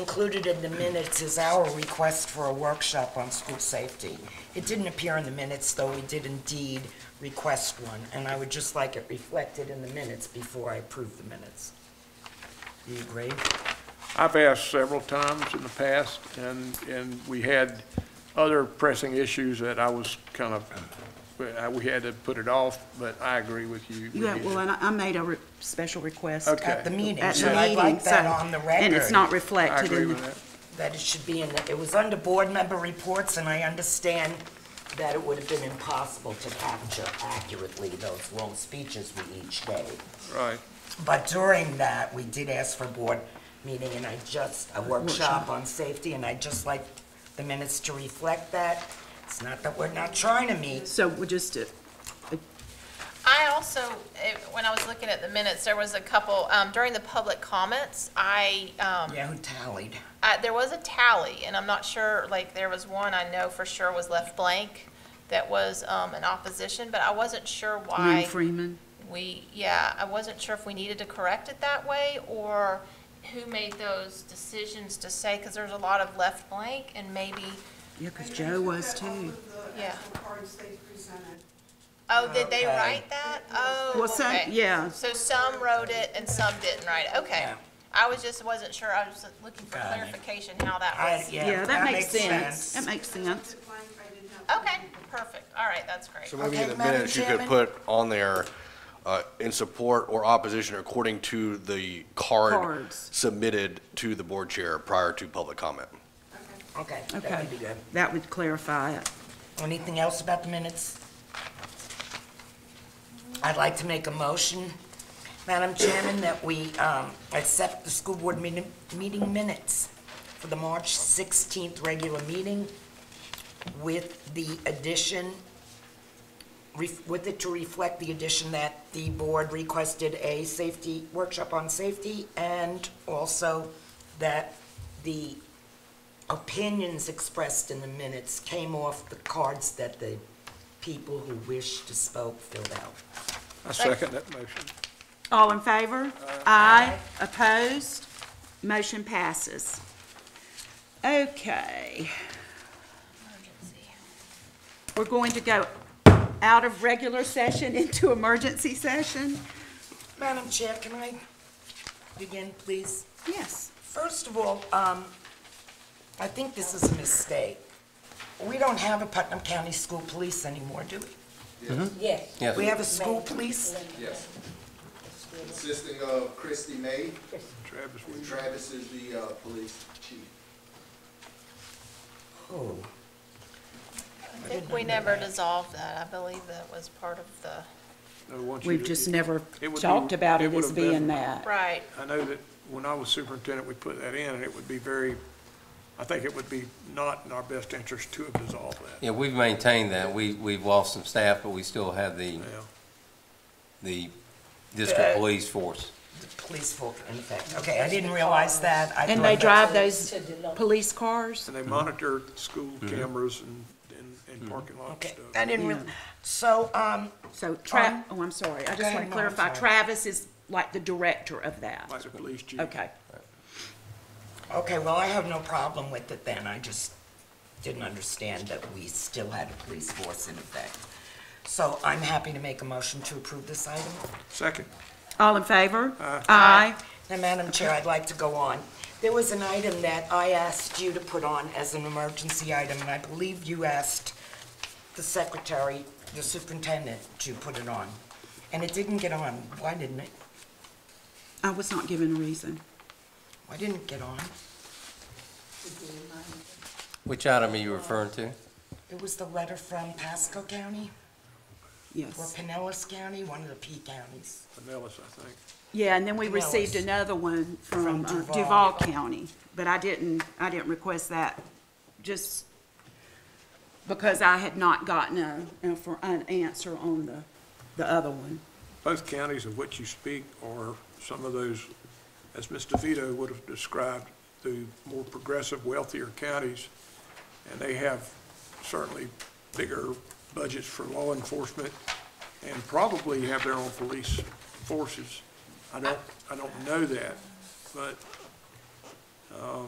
Included in the minutes is our request for a workshop on school safety. It didn't appear in the minutes, though we did indeed request one, and I would just like it reflected in the minutes before I approve the minutes. Do you agree? I've asked several times in the past, and, and we had other pressing issues that I was kind of, but I- we had to put it off, but I agree with you. We Yeah, need well, to- and I I made a re- special request at Okay. At the meeting, the so I'd meeting, like so, that on the record. and it's not I reflected agree in the... with that. That it should be in, the- it was under board member reports, and I understand that it would have been impossible to capture accurately those long speeches we each gave. Right. But during that, we did ask for board meeting, and I just, a workshop Workshop. on safety, and I just like the minutes to reflect that. It's not that we're not trying to meet. So we just, uh, I also, eh, when I was looking at the minutes, there was a couple, um, during the public comments, I, um, Yeah, who tallied? I- there was a tally, and I'm not sure, like, there was one I know for sure was left blank that was um, in opposition, but I wasn't sure Lynn why Freeman, we, yeah, I wasn't sure if we needed to correct it that way, or who made those decisions to say, because there's a lot of left blank, and maybe, yeah, because Joe was too. Yeah. Yeah. cards they presented. oh, did they Okay. write that? Oh, Well, some, okay. yeah, So some wrote it and some didn't write it, okay. Yeah. I was just, wasn't sure, I was looking for Got it. clarification how that I, was. yeah, that makes sense. That makes sense. Blank, I didn't have. Okay, perfect, all right, that's great. So maybe Okay, in the Madam minutes, you could Chairman? put on there, uh, in support or opposition according to the card Cards. submitted to the board chair prior to public comment. Okay, that Okay. would be good. That would clarify it. Anything else about the minutes? I'd like to make a motion, Madam Chairman, that we um, accept the school board meeting meeting minutes for the March 16th regular meeting with the addition, ref- with it to reflect the addition that the board requested a safety, workshop on safety, and also that the opinions expressed in the minutes came off the cards that the people who wished to spoke filled out. I second that motion. All in favor? Uh, Aye. Opposed? Motion passes. Okay. We're going to go out of regular session into emergency session? Madam Chair, can I begin, please? Yes. First of all, um, I think this is a mistake. We don't have a Putnam County School Police anymore, do we? Yes. Yes. We have a school police? Yes. Consisting of Christy May, Travis, and Travis is the uh, police chief. Oh, I think we never dissolved that, I believe that was part of the, I want you We've to- just never It would be- talked about it it would as have been- being that. right, I know that when I was superintendent, we put that in, and it would be very, I think it would be not in our best interest to have dissolved that. Yeah, we've maintained that. We, we've lost some staff, but we still have the, Yeah. the Yeah. district police force. the police force, in effect. Okay, I didn't realize that. I And they thought that- drive those police cars? And they monitor school cameras and, and- and parking lot Okay, stuff. I didn't real, so, um, So Um, Tra, oh, I'm sorry, go I just ahead, want Mom, to clarify, sorry. Travis is like the director of Like that. the police chief. Okay, okay, well, I have no problem with it then. I just didn't understand that we still had a police force in effect. So I'm happy to make a motion to approve this item. Second, all in favor? Uh, Aye. Now, Madam Chair, I'd like to go on. There was an item that I asked you to put on as an emergency item, and I believe you asked the secretary, the superintendent, to put it on. And it didn't get on. Why didn't it? I was not given a reason. Why didn't it get on? Which item are you referring to? It was the letter from Pasco County or Yes. Pinellas County, one of the P counties. Pinellas, I think. Yeah, and then we Pinellas. received another one From from uh, Duval. Duval County, but I didn't, I didn't request that, just because I had not gotten a, uh, for an answer on the, the other one. Both counties of which you speak are some of those, as Ms. DeVito would have described, the more progressive, wealthier counties, and they have certainly bigger budgets for law enforcement and probably have their own police forces. I don't, I don't know that, but uh,